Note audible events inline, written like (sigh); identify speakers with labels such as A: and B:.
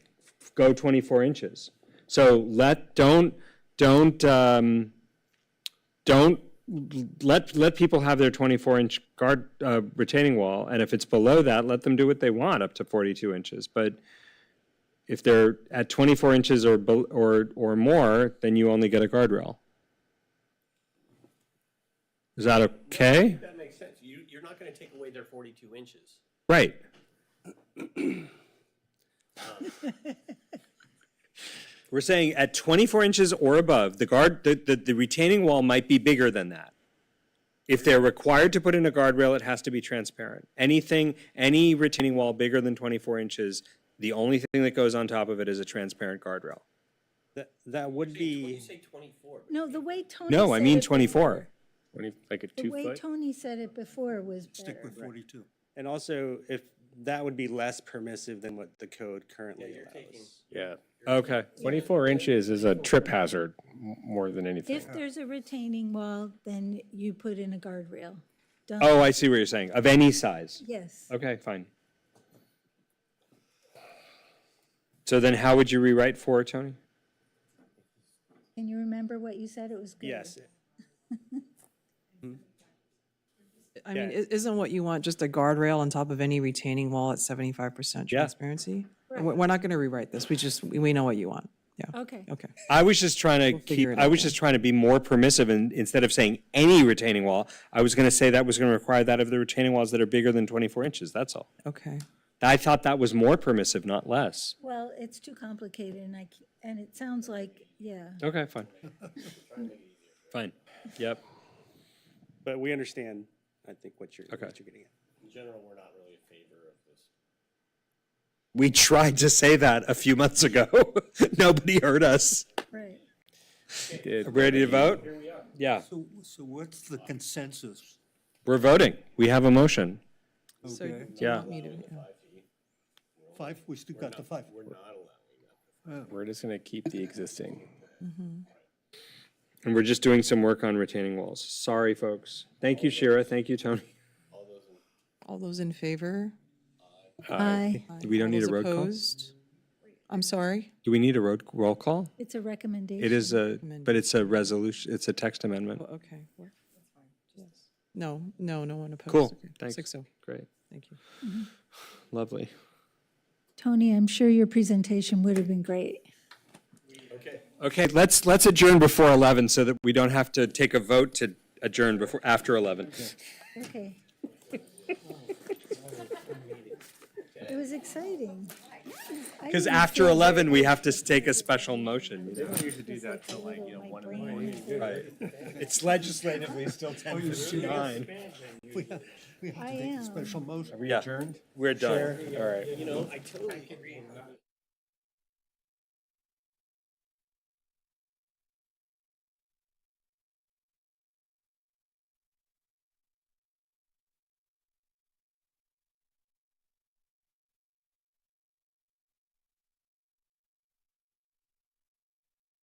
A: go 24 inches. So let, don't, don't, um, don't, let, let people have their 24 inch guard, uh, retaining wall. And if it's below that, let them do what they want up to 42 inches. But if they're at 24 inches or, bel- or, or more, then you only get a guardrail. Is that okay?
B: That makes sense. You, you're not gonna take away their forty-two inches.
A: Right. (laughs) We're saying at 24 inches or above, the guard, the, the, the retaining wall might be bigger than that. If they're required to put in a guardrail, it has to be transparent. Anything, any retaining wall bigger than 24 inches, the only thing that goes on top of it is a transparent guardrail.
C: That, that would
B: You
C: be,
B: say twenty-four.
D: No, the way Tony.
A: No, I
D: said
A: mean
D: it
A: 24.
E: Twenty, like a
D: before- The
E: two
D: way
E: foot?
D: Tony said it before was
F: Stick
D: better.
F: with forty-two.
C: and also if, that would be less permissive than what the code currently
B: you're taking-
C: allows.
E: Yeah.
A: Okay.
E: Twenty-four inches is a trip hazard m- more than anything.
D: If there's a retaining wall, then you put in a guardrail. Don't-
A: Oh, I see what you're saying. Of any size.
D: Yes.
A: Okay, fine. So then how would you rewrite four, Tony?
D: Can you remember what you said? It was good.
C: Yes,
G: I mean, i- isn't what you want just a guardrail on top of any retaining wall at seventy-five percent
A: Yeah.
G: transparency? And we- We're not gonna rewrite this, we just, we we know what you want, yeah,
D: Okay.
G: okay.
A: I was just trying to keep,
G: figure it
A: I
G: out
A: was just trying to be more permissive and instead of saying any retaining wall, I was going to say that was going to require that of the retaining walls that are bigger than 24 inches. That's all.
G: Okay,
A: I thought that was more permissive, not less.
D: Well, it's too complicated and I, c- and it sounds like, yeah.
A: Okay, (laughs) fine. Fine. Yep.
C: but we understand, I think, what you're, what you're getting at.
B: In general, we're not really in favor of this.
A: We tried to say that a few months ago. (laughs) Nobody heard us.
D: Right.
A: Ready to vote? Yeah,
F: So, so what's the consensus?
A: we're voting. We have a motion.
G: so you
F: Okay,
A: Yeah.
G: want me to- yeah.
F: five, we still got the five.
E: We're just gonna keep the existing.
A: And we're just doing some work on retaining walls. Sorry, folks. Thank you, Shira. Thank you, Tony.
G: all those in favor?
D: Aye.
G: Aye.
A: Do we don't
G: All
A: need a
G: those
A: road call?
G: opposed? I'm sorry,
A: Do we need a road roll call?
D: It's a recommendation.
A: It is a, but it's a resolution, it's a text amendment.
G: Well, okay. We're- yes. No, no, no one opposed.
A: Cool,
G: Okay.
A: thanks.
G: Six oh,
A: Great,
G: thank you.
A: lovely.
D: Tony, I'm sure your presentation would have been great.
A: Okay, let's, let's adjourn before 11 so that we don't have to take a vote to adjourn before, after 11.
D: Okay. It was exciting. I
A: Because
D: didn't
A: after
D: feel
A: 11, we have to s- take a special motion, you know?
D: this, like, a little- my brain was-
A: It's legislatively still
F: Oh,
A: 10:59.
F: We have we have
D: I
F: to take
D: am.
F: a special motion.
A: Yeah, we're done. All right.
B: You know, I totally agree.